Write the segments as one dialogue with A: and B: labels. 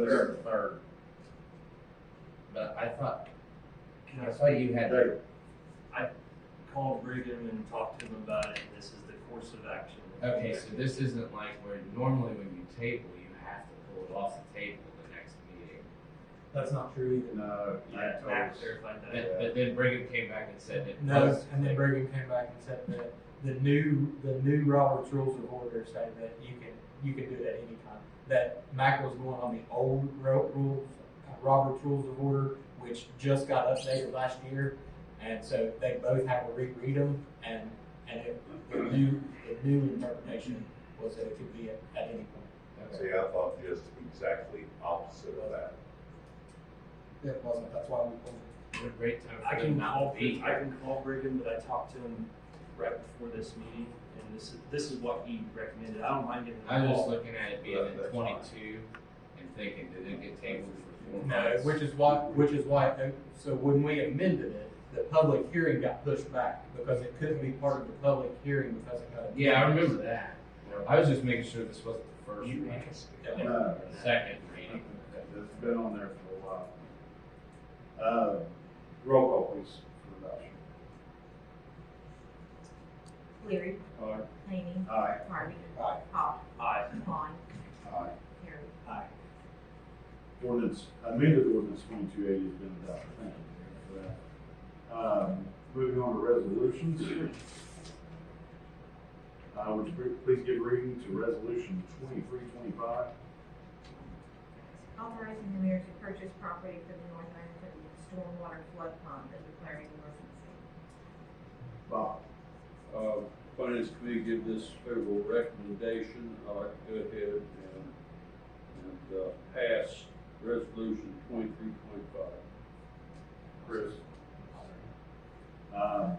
A: they're in third.
B: But I thought, I thought you had,
A: They-
C: called Brigham and talked to him about it, and this is the course of action.
B: okay, so this isn't like where normally when you table, you have to pull it off the table the next meeting.
D: That's not true uh, either.
A: No,
C: Yeah,
A: yeah,
C: Matt
A: totally.
C: clarified that.
B: But, but then Brigham came back and said it
D: No,
B: was.
D: and then Brigham came back and said that the new, the new Robert's Rules of Order say that you can, you can do that anytime. That Mac was going on the old ro- rules, uh, Robert's Rules of Order, which just got updated last year. And so they both had to reread them and, and it, the new, the new interpretation was that it could be at, at any point.
B: Okay.
E: See, I thought this was exactly opposite of that.
D: It wasn't, that's why we pulled it.
B: What a great time
C: I
B: for them
C: can call,
B: not to be
C: I
B: here.
C: can call Brigham, but I talked to him right before this meeting, and this is, this is what he recommended. I don't mind giving him
B: I'm
C: a
B: just
C: call.
B: looking at it being
E: That-
B: at
E: that's
B: twenty-two and thinking, did it get tabled for four
D: No,
B: months?
D: which is why, which is why, so when we amended it, the public hearing got pushed back because it couldn't be part of the public hearing because it got.
B: Yeah, I remember that. I was just making sure this wasn't the first reading,
A: No,
B: the second reading.
A: it's been on there for a while. Uh, roll call please for adoption.
F: Leary,
A: Aye.
F: Hany,
A: Aye.
F: Harvey,
D: Aye.
F: Hawk,
C: Aye.
F: Vaughn,
A: Aye.
F: Harry.
A: Ordinance, amended ordinance twenty-two eighty has been adopted. Thank you Mayor, for that. Um, moving on to resolutions. Uh, would you pre- please give reading to resolution twenty-three twenty-five?
F: Authorizing the mayor to purchase property for the North Ironton stormwater flood pond and declaring an emergency.
A: Bob.
G: Uh, Finance committee give this favorable recommendation, I'd like to go ahead and, and, uh, pass resolution twenty-three twenty-five.
A: Chris. Um,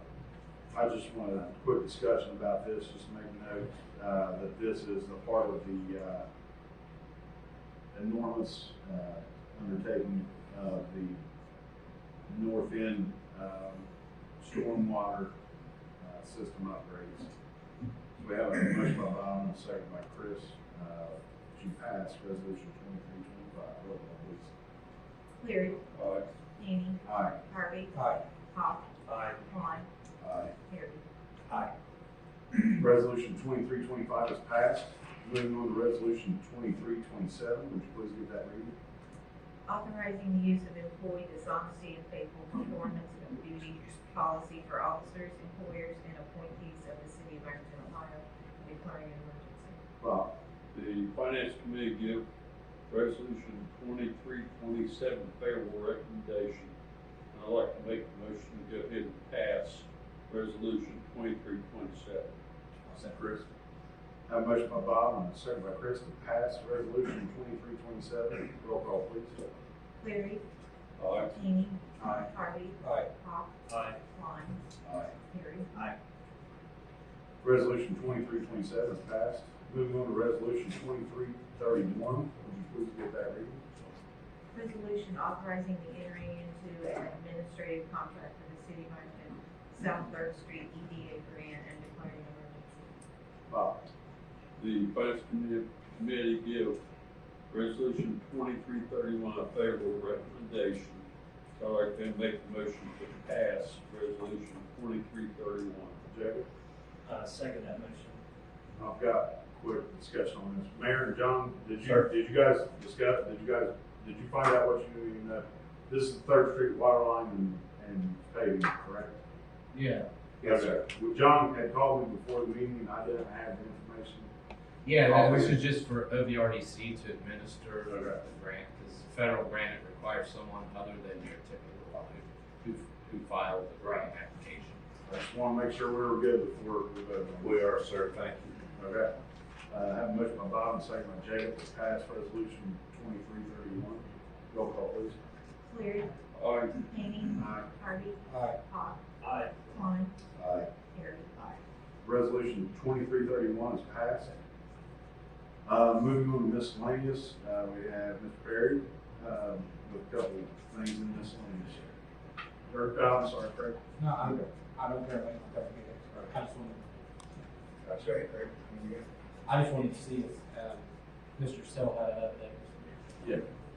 A: I just want a quick discussion about this, just to make note, uh, that this is a part of the, uh, enormous, uh, undertaking of the north end, um, stormwater, uh, system upgrades. So we have a motion by Bob and a second by Chris, uh, to pass resolution twenty-three twenty-five, roll call please.
F: Leary,
G: Aye.
F: Hany,
A: Aye.
F: Harvey,
D: Aye.
F: Hawk,
C: Aye.
F: Vaughn,
A: Aye.
F: Harry.
A: Resolution twenty-three twenty-five is passed. Moving on to resolution twenty-three twenty-seven, would you please give that reading?
F: Authorizing the use of employee dishonesty and faithful performance of duty policy for officers, employers, and appointees of the city of Ironton, Ohio, and declaring an emergency.
A: Bob.
G: The finance committee give resolution twenty-three twenty-seven favorable recommendation, and I'd like to make a motion to go ahead and pass resolution twenty-three twenty-seven.
A: Chris. Have a motion by Bob and a second by Chris to pass resolution twenty-three twenty-seven. Roll call, please.
F: Leary,
G: Aye.
F: Hany,
A: Aye.
F: Harvey,
D: Aye.
F: Hawk,
C: Aye.
F: Vaughn,
A: Aye.
F: Harry.
A: Resolution twenty-three twenty-seven is passed. Moving on to resolution twenty-three thirty-one, would you please give that reading?
F: Resolution authorizing the entering into an administrative contract for the city of Ironton, South Third Street EDA grant and declaring an emergency.
A: Bob.
G: The finance committee, committee give resolution twenty-three thirty-one a favorable recommendation. So I'd like to make a motion to pass resolution twenty-three thirty-one.
A: Jacob.
C: Uh, second that motion.
A: I've got a quick discussion on this. Mayor and John, did you,
B: Sure.
A: did you guys discuss, did you guys, did you find out what you knew? know? This is Third Street water line and, and paving, correct?
B: Yeah,
A: Yes, sir. Well, John had called me before the meeting, and I didn't have the information.
B: Yeah, that, this
A: Probably.
B: is just for OVRDC to administer the
A: Okay.
B: grant, because federal grant it requires someone other than your typical uh, who, who- who filed the grant application.
A: I just want to make sure we were good before we voted on
E: We are, sir, thank you.
A: it. Okay. Uh, I have a motion by Bob and a second by Jacob to pass resolution twenty-three thirty-one. Roll call, please.
F: Cleary,
G: Aye.
F: Hany,
A: Aye.
F: Harvey,
D: Aye.
F: Hawk,
C: Aye.
F: Vaughn,
A: Aye.
F: Harry.
A: Resolution twenty-three thirty-one is passed. Uh, moving on to miscellaneous, uh, we have Mr. Perry, um, with a couple of things in miscellaneous. Or, uh, I'm sorry, Craig.
D: No, I don't, I don't care about that. I just wanted,
E: That's right.
D: I just wanted to see if, um, Mr. Stell uh, had an update.
A: Yeah.